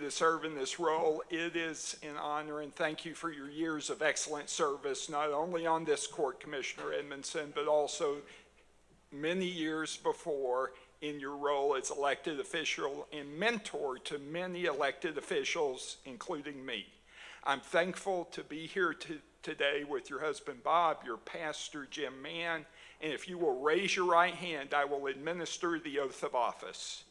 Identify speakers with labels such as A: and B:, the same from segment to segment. A: to serve in this role. It is an honor, and thank you for your years of excellent service, not only on this court, Commissioner Edmondson, but also many years before in your role as elected official and mentor to many elected officials, including me. I'm thankful to be here to, today with your husband Bob, your pastor Jim Mann, and if you will raise your right hand, I will administer the oath of office.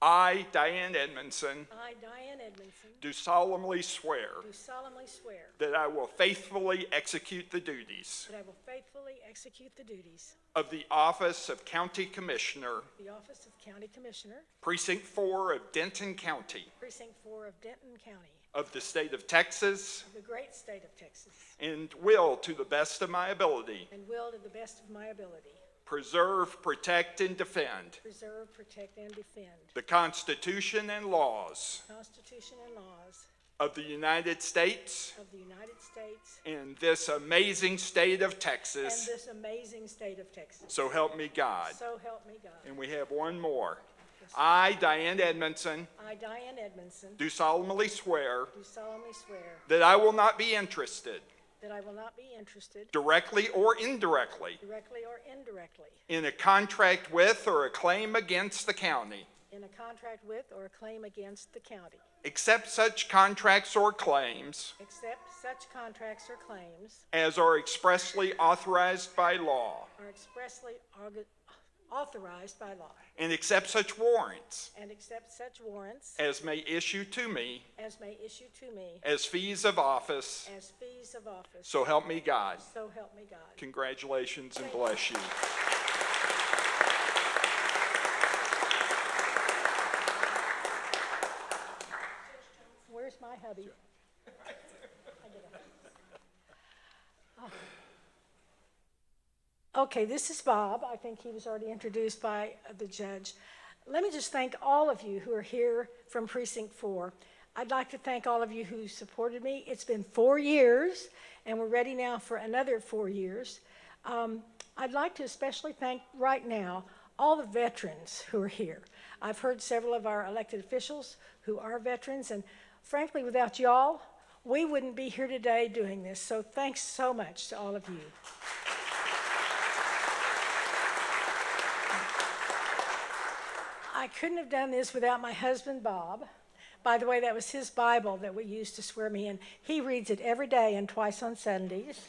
A: I, Diane Edmondson,
B: I, Diane Edmondson,
A: do solemnly swear
B: do solemnly swear
A: that I will faithfully execute the duties
B: that I will faithfully execute the duties
A: of the office of County Commissioner,
B: of the office of County Commissioner,
A: Precinct 4 of Denton County,
B: Precinct 4 of Denton County,
A: of the state of Texas,
B: of the great state of Texas,
A: and will, to the best of my ability,
B: and will, to the best of my ability,
A: preserve, protect, and defend
B: preserve, protect, and defend
A: the Constitution and laws
B: the Constitution and laws
A: of the United States
B: of the United States
A: and this amazing state of
B: and
A: Texas.
B: this amazing state of Texas.
A: So help me God.
B: So help me God.
A: And we have one more. I, Diane Edmondson,
B: I, Diane Edmondson,
A: do solemnly swear
B: do solemnly swear
A: that I will not be interested,
B: that I will not be interested,
A: directly or indirectly,
B: directly or indirectly,
A: in a contract with or a claim against the county,
B: in a contract with or a claim against the county,
A: except such contracts or claims
B: except such contracts or claims
A: as are expressly authorized by law,
B: are expressly orga- authorized by law,
A: and accept such warrants
B: and accept such warrants
A: as may issue to me
B: as may issue to me
A: as fees of office.
B: as fees of office.
A: So help me God.
B: So help me God.
A: Congratulations and bless you.
B: Where's my hubby? I get it. Okay, this is Bob. I think he was already introduced by uh, the judge. Let me just thank all of you who are here from Precinct 4. I'd like to thank all of you who supported me. It's been four years, and we're ready now for another four years. Um, I'd like to especially thank right now all the veterans who are here. I've heard several of our elected officials who are veterans, and frankly, without y'all, we wouldn't be here today doing this. So thanks so much to all of you. I couldn't have done this without my husband, Bob. By the way, that was his Bible that we used to swear me in. He reads it every day and twice on Sundays.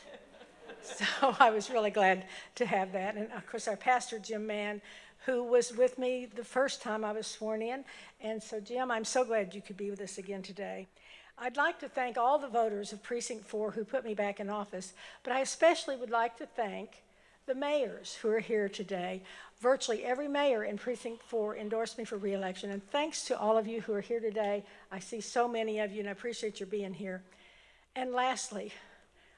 B: so I was really glad to have that. And of course, our pastor, Jim Mann, who was with me the first time I was sworn in. And so, Jim, I'm so glad you could be with us again today. I'd like to thank all the voters of Precinct 4 who put me back in office, but I especially would like to thank the mayors who are here today. Virtually every mayor in Precinct 4 endorsed me for reelection, and thanks to all of you who are here today. I see so many of you, and I appreciate your being here. And lastly,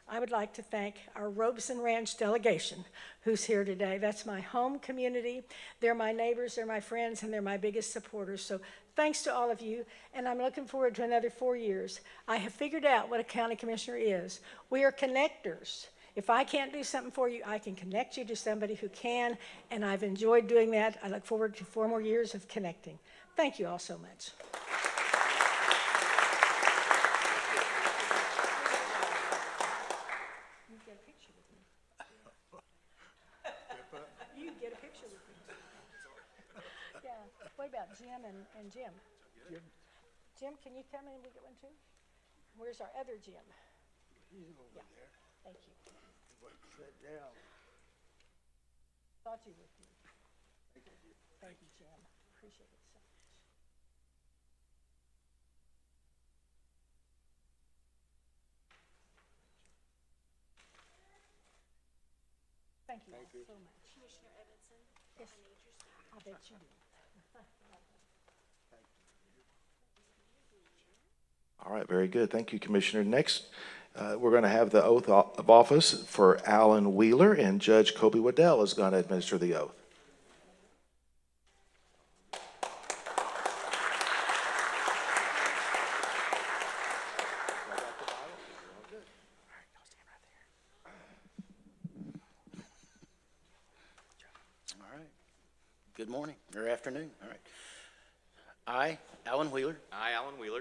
B: I would like to thank our Robeson Ranch delegation who's here today. That's my home community. They're my neighbors, they're my friends, and they're my biggest supporters. So thanks to all of you, and I'm looking forward to another four years. I have figured out what a county commissioner is. We are connectors. If I can't do something for you, I can connect you to somebody who can, and I've enjoyed doing that. I look forward to four more years of connecting. Thank you all so much. You get a picture with me. You can get a picture with me. Yeah, what about Jim and, and Jim? Jim, can you come in and we get one too? Where's our other Jim? Yeah. Thank you. Thought you would be. Thank you, Jim. Appreciate it so much. Thank you all so much.
C: Commissioner Edmondson,
B: Yes,
C: I need your signature.
B: I bet you do.
D: All right, very good. Thank you, Commissioner. Next, uh, we're going to have the oath o- of office for Alan Wheeler, and Judge Kobe Waddell is going to administer the oath.
E: All right. Good morning, or afternoon, all right.
C: I, Alan Wheeler,
E: I, Alan Wheeler,